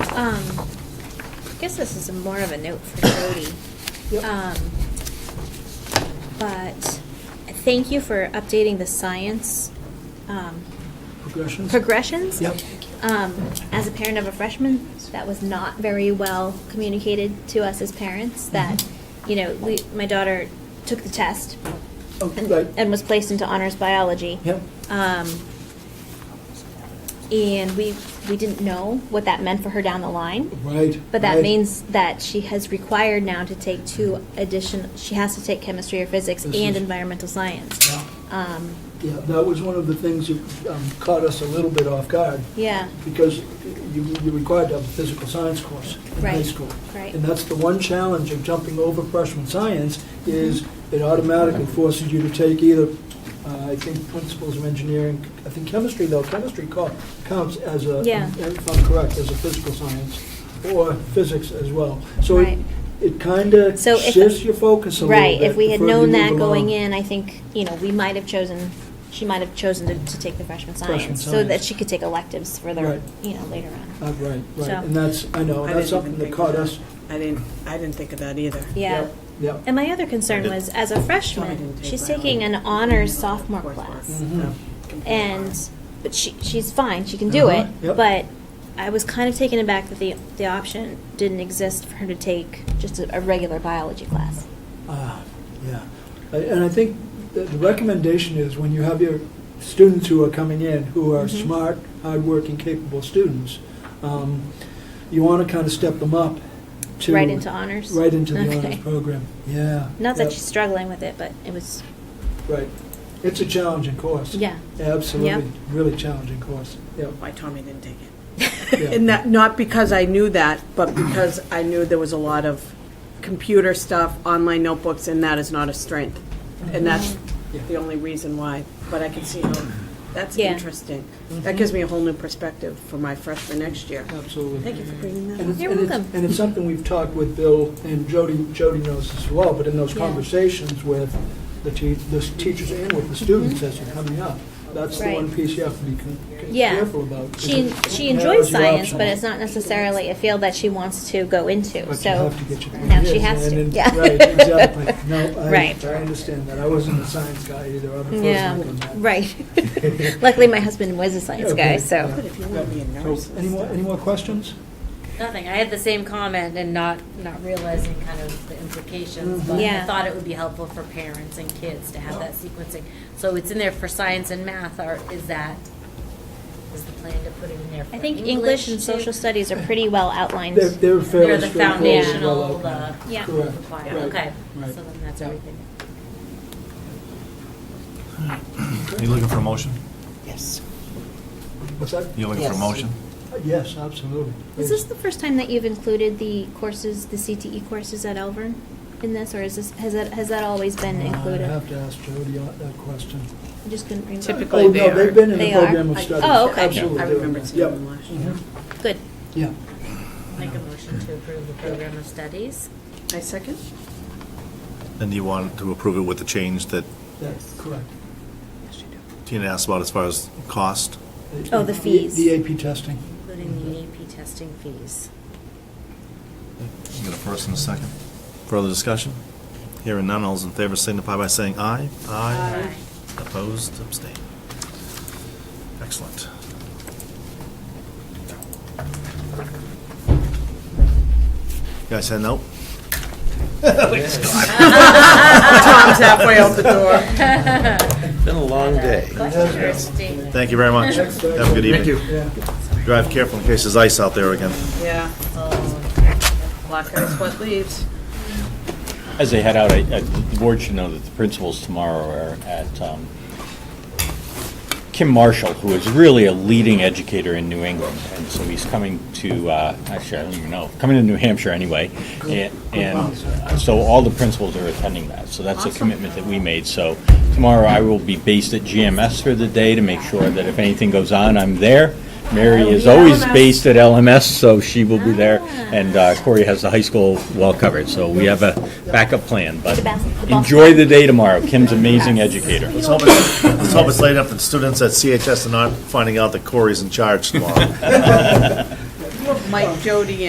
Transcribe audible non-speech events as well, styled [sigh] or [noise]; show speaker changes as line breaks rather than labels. Um, I guess this is more of a note for Jody.
Yep.
Um, But thank you for updating the science um,
Progressions?
progressions.
Yep.
Um, As a parent of a freshman, that was not very well communicated to us as parents, that,
Mm-hmm.
you know, we, my daughter took the test
Oh,
and-
right.
and was placed into honors biology.
Yep.
Um, And we, we didn't know what that meant for her down the line.
Right.
But that
Mm-hmm. right.
means that she has required now to take two addition, she has to take chemistry or physics
This
and
is-
environmental science.
Yeah,
Um,
Yeah, that was one of the things that um, caught us a little bit off guard,
yeah,
because you, you're required to have a physical science course in high
Right,
school.
right.
And that's the one challenge of jumping over freshman science, is it automatically forces you to take either, uh, I think, principles of engineering, I think chemistry, though, chemistry co- counts as a,
Yeah.
if I'm correct, as a physical science, or physics as well. So
Right.
it, it kind of
So if-
shifts your focus a little bit.
right. If we had
the further
known
you
that
move
going
along.
in, I think, you know, we might have chosen, she might have chosen to, to take the freshman
Freshman
science. So
science.
that she could take electives further,
Right.
you know, later on.
Uh, Right, right,
So-
and that's, I know,
I
that's
didn't even
something that
think
caught
of
us.
I didn't, I didn't think of that either.
Yeah.
Yep.
And my other concern was, as a
Sorry, I
freshman,
didn't take
she's
biology.
taking an honors sophomore
Coursework.
class.
Mhm.
Yeah. Computer
and
science.
but she she's fine. She can do
Uh-huh,
it.
yep.
But I was kind of taken aback that the the option didn't exist for her to take just a, a regular biology class.
Ah, yeah. I- And I think that the recommendation is when you have your students who are coming in, who are
Mhm.
smart, hardworking, capable students, um, you want to kind of step them up to.
right into honors.
Right into the
[laughs] Okay.
honors program, yeah.
Not that
yep,
she's struggling with it, but it was
Right. It's a challenging course.
yeah.
Absolutely, really challenging course,
[laughs]
yep.
Why Tommy didn't take it.
Yeah.
And that, not because I knew that, but because I knew there was a lot of computer stuff, online notebooks, and that is not a strength. And that's
Mm-hmm. Yeah.
the only reason why, but I can see how, that's
Yeah.
interesting.
Mm-hmm.
That gives me a whole new perspective for my freshman next year.
Absolutely.
Thank you for bringing that
And
up.
it's-
You're
and it's-
welcome.
And it's something we've talked with Bill, and Jody, Jody knows this as well, but in those
Yeah.
conversations with the te, the teachers and with the students as you're coming up, that's the
Mm-hmm. Right.
one piece you have to be con- con-
Yeah.
careful about.
She she enjoys science, but it's not necessarily a field that she wants to go into.
But you
so
have to get your.
now she
ideas,
has
and
to,
then-
yeah.
Right,
[laughs]
exactly. No, I,
Right.
I understand that. I wasn't a science guy either. I'm a first
yeah,
one on that.
right.
[laughs]
Luckily, my husband was a science guy,
Okay,
so.
yeah.
But if you want to be a
So,
nurse and
Any more,
stuff.
any more questions?
Nothing. I had the same comment and not, not realizing kind of the implications, but I
Yeah.
thought it would be helpful for parents and kids to have that sequencing. So it's in there for science and math, or is that, is the plan to put it in there for
I
English?
think English and
too?
social studies are pretty well outlined.
They're, they're
They're
fairly
the
straightforward.
foundational,
well
the.
outlined.
uh, Yeah.
Correct.
requirement.
Right,
Okay,
right.
so then that's
Yeah.
everything.
Are you looking for a motion?
Yes.
What's that?
You looking for a
Yes.
motion?
Uh, Yes, absolutely.
Is
Yes.
this the first time that you've included the courses, the CTE courses at Elvern in this, or is this, has that, has that always been
Uh, I
included?
have to ask Jody on that question.
I just couldn't remember.
Typically,
Oh,
they
no,
are-
they've been in the
They are?
program of
I-
studies.
Oh, okay.
Absolutely.
I
they're in
remember
there.
seeing
Yep.
them last year.
Mhm.
Good.
Yeah.
Make a motion to approve the program of studies.
I second?
And do you want to approve it with the change that
That's correct.
Tina asked about as far as cost?
Oh, the fees.
The AP testing.
Including the E AP testing fees.
You got a first and a second? Further discussion? Hearing none, all those in favor signify by saying aye.
Aye.
Opposed, abstain. Excellent. You guys
[laughs]
heading out?
Tom's halfway out the door.
[laughs]
[laughs] Been a long day.
Interesting.
Thank you very much. Have a good evening.
Yeah.
Drive careful in case there's ice out there again.
Yeah. Black is what leaves.
As they head out, I- I- the board should know that the principals tomorrow are at um, Kim Marshall, who is really a leading educator in New England, and so he's coming to, uh, actually, I don't even know, coming to New Hampshire anyway, and and so all the principals are attending that, so that's a commitment that we made, so tomorrow I will be based at GMS for the day to make sure that if anything goes on, I'm there. Mary is always based at LMS, so she will be there, and uh, Corey has the high school well covered, so we have a backup plan, but
The bas- the bus-
enjoy the day tomorrow, Kim's amazing educator.
Let's hope it's, let's hope it's late enough that students at CHS are not finding out that Corey's in charge tomorrow.
Mike Jody